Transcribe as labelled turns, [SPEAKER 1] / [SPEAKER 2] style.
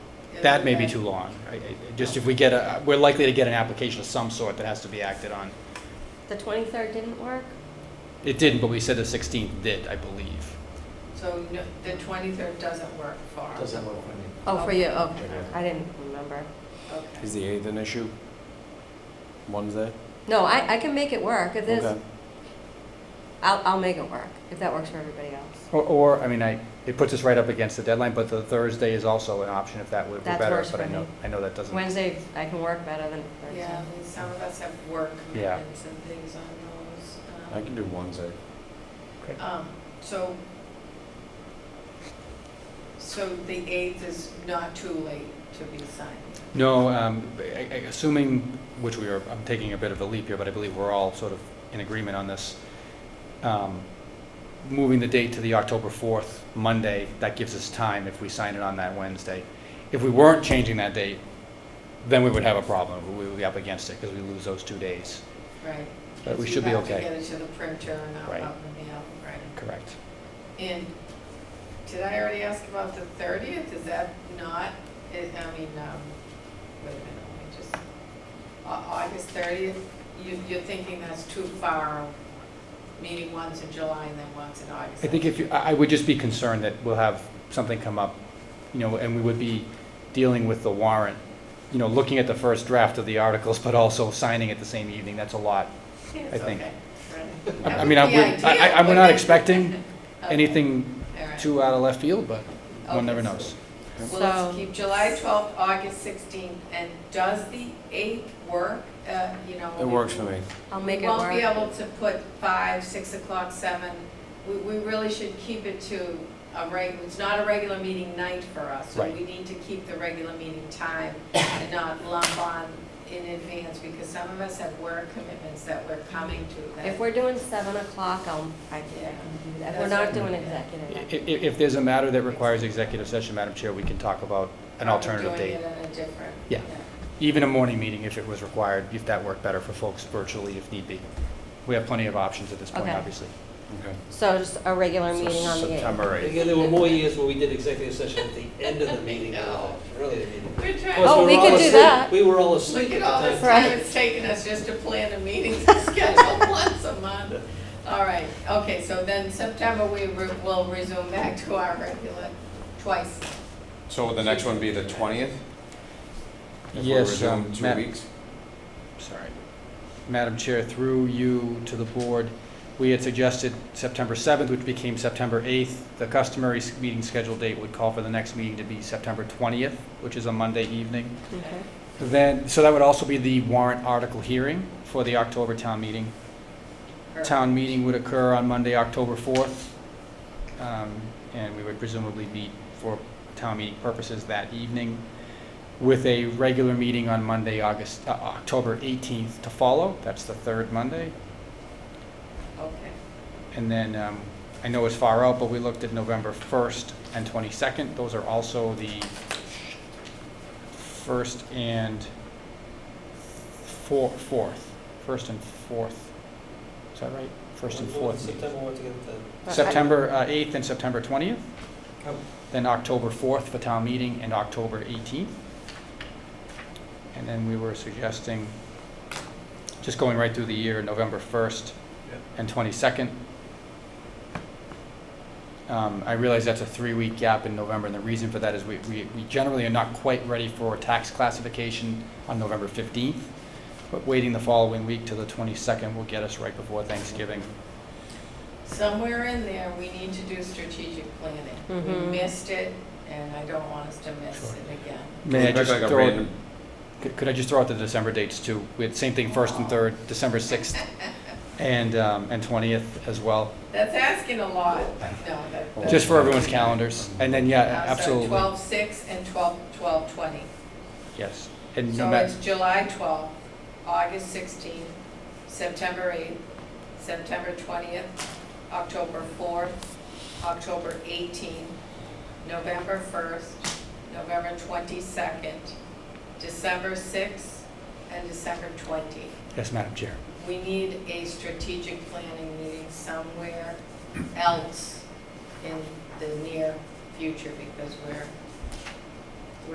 [SPEAKER 1] that may be too long. I- I- Just if we get a, we're likely to get an application of some sort that has to be acted on.
[SPEAKER 2] The 23rd didn't work?
[SPEAKER 1] It didn't, but we said the 16th did, I believe.
[SPEAKER 3] So no- the 23rd doesn't work for us?
[SPEAKER 4] Doesn't work for me.
[SPEAKER 2] Oh, for you, oh,
[SPEAKER 4] Yeah.
[SPEAKER 2] I didn't remember.
[SPEAKER 3] Okay.
[SPEAKER 5] Is the eighth an issue? Wednesday?
[SPEAKER 2] No, I, I can make it work. If this,
[SPEAKER 5] Okay.
[SPEAKER 2] I'll, I'll make it work, if that works for everybody else.
[SPEAKER 1] Or- Or, I mean, I, it puts us right up against the deadline, but the Thursday is also an option if that would be
[SPEAKER 2] That's
[SPEAKER 1] better.
[SPEAKER 2] worse
[SPEAKER 1] But I
[SPEAKER 2] for
[SPEAKER 1] know,
[SPEAKER 2] me.
[SPEAKER 1] I know that doesn't.
[SPEAKER 2] Wednesday, I can work better than
[SPEAKER 3] Yeah,
[SPEAKER 2] Thursday.
[SPEAKER 3] and some of us have work
[SPEAKER 1] Yeah.
[SPEAKER 3] commitments and things on
[SPEAKER 5] I
[SPEAKER 3] those.
[SPEAKER 5] can do Wednesday.
[SPEAKER 3] um, Um, so, so the 8th is not too late to be signed.
[SPEAKER 1] No, um, I- I- assuming, which we are, I'm taking a bit of a leap here, but I believe we're all sort of in agreement on this. Um, Moving the date to the October 4th, Monday, that gives us time if we sign it on that Wednesday. If we weren't changing that date, then we would have a problem. We would be up against it because we lose those two days.
[SPEAKER 3] Right.
[SPEAKER 1] But we
[SPEAKER 3] So you
[SPEAKER 1] should be
[SPEAKER 3] have to
[SPEAKER 1] okay.
[SPEAKER 3] get it to the printer and out
[SPEAKER 1] Right.
[SPEAKER 3] out in the mail, right?
[SPEAKER 1] Correct.
[SPEAKER 3] And did I already ask about the 30th? Is that not, I I mean, um, wait a minute, let me just, Au- August 30th? You, you're thinking that's too far, meeting once in July and then once in August?
[SPEAKER 1] I think if you, I I would just be concerned that we'll have something come up, you know, and we would be dealing with the warrant, you know, looking at the first draft of the articles, but also signing it the same evening. That's a lot. I think- I I mean, I, would- I, I- we're not expecting anything too out of left field, but one never knows.
[SPEAKER 3] Well, let's
[SPEAKER 2] So-
[SPEAKER 3] keep July 12th, August 16th, and does the 8th work, Uh, you know?
[SPEAKER 5] It works for me.
[SPEAKER 2] I'll
[SPEAKER 3] We
[SPEAKER 2] make it
[SPEAKER 3] won't be
[SPEAKER 2] work.
[SPEAKER 3] able to put five, six o'clock, seven. We, we really should keep it to a reg, it's not a regular meeting night for us. So
[SPEAKER 1] Right.
[SPEAKER 3] we need to keep the regular meeting time and not lump on in advance because some of us have work commitments that we're coming to. that-
[SPEAKER 2] If we're doing 7 o'clock, I'll, I can, I can do that. If we're not doing
[SPEAKER 1] I- i-
[SPEAKER 2] executive,
[SPEAKER 1] If, if there's a matter that requires executive session, Madam Chair, we can talk about an alternative
[SPEAKER 3] Doing
[SPEAKER 1] date.
[SPEAKER 3] it in a different.
[SPEAKER 1] Yeah. Even a morning meeting if it was required, if that worked better for folks virtually if need be. We have plenty of options at this point,
[SPEAKER 2] Okay.
[SPEAKER 1] obviously.
[SPEAKER 5] Okay.
[SPEAKER 2] so just a regular
[SPEAKER 5] So
[SPEAKER 2] meeting on the 8th.
[SPEAKER 5] September eighth.
[SPEAKER 4] Again, there were more years where we did executive session at the end of the meeting, than the early in the meeting.
[SPEAKER 3] We're
[SPEAKER 4] Of
[SPEAKER 3] trying,
[SPEAKER 4] course,
[SPEAKER 2] Oh,
[SPEAKER 4] were
[SPEAKER 2] we
[SPEAKER 4] all
[SPEAKER 2] could do
[SPEAKER 4] asleep-
[SPEAKER 2] that.
[SPEAKER 4] We were all asleep
[SPEAKER 3] look
[SPEAKER 4] at
[SPEAKER 3] at all this
[SPEAKER 4] the time.
[SPEAKER 3] time
[SPEAKER 2] Right.
[SPEAKER 3] it's taken us just to plan a meeting to schedule once a month. All right, okay, so then September, we re- will resume back to our regular, twice
[SPEAKER 6] So would the next one be the twentieth?
[SPEAKER 1] Yes, um,
[SPEAKER 6] If we resume
[SPEAKER 1] Ma-
[SPEAKER 6] two weeks?
[SPEAKER 1] sorry. Madam Chair, through you to the board, we had suggested September 7th, which became September 8th. The customary s- meeting schedule date would call for the next meeting to be September 20th, which is a Monday evening.
[SPEAKER 2] Okay.
[SPEAKER 1] Then, so that would also be the warrant article hearing for the October town meeting.
[SPEAKER 3] Correct.
[SPEAKER 1] Town meeting would occur on Monday, October 4th, um, and we would presumably meet for town meeting purposes that evening with a regular meeting on Monday, August, uh, October 18th to follow. That's the third Monday.
[SPEAKER 3] Okay,
[SPEAKER 1] And then, um, I know it's far out, but we looked at November 1st and 22nd. Those are also the first and four, fourth, first and fourth. Is that right? First and fourth. meetings.
[SPEAKER 4] September altogether, then.
[SPEAKER 2] But I-
[SPEAKER 1] September uh, 8th and September 20th,
[SPEAKER 4] Oh.
[SPEAKER 1] then October 4th for town meeting and October 18th. And then we were suggesting, just going right through the year, November 1st
[SPEAKER 4] Yeah.
[SPEAKER 1] and 22nd. Um, I realize that's a three-week gap in November, and the reason for that is we we we generally are not quite ready for tax classification on November 15th, but waiting the following week to the 22nd will get us right before Thanksgiving.
[SPEAKER 3] somewhere in there, we need to do strategic planning.
[SPEAKER 2] Mhm.
[SPEAKER 3] We missed it, and I don't want us to miss
[SPEAKER 1] Sure.
[SPEAKER 3] it again.
[SPEAKER 1] May I
[SPEAKER 6] Looks
[SPEAKER 1] just
[SPEAKER 6] like a
[SPEAKER 1] throw
[SPEAKER 6] random-
[SPEAKER 1] Could could I just throw out the December dates too? We had same thing, first and third, December 6th and, um, and 20th as well,
[SPEAKER 3] That's asking a lot, no, that.
[SPEAKER 1] just for everyone's calendars. And then, yeah, absolutely,
[SPEAKER 3] Oh, Twelve, six, and twelve, twelve, twenty.
[SPEAKER 1] yes. And no
[SPEAKER 3] So
[SPEAKER 1] matter,
[SPEAKER 3] it's July 12th, August 16th, September 8th, September 20th, October 4th, October 18th, November 1st, November 22nd, December 6th, and December 20th.
[SPEAKER 1] yes, Madam Chair.
[SPEAKER 3] We need a strategic planning meeting somewhere else in the near future because we're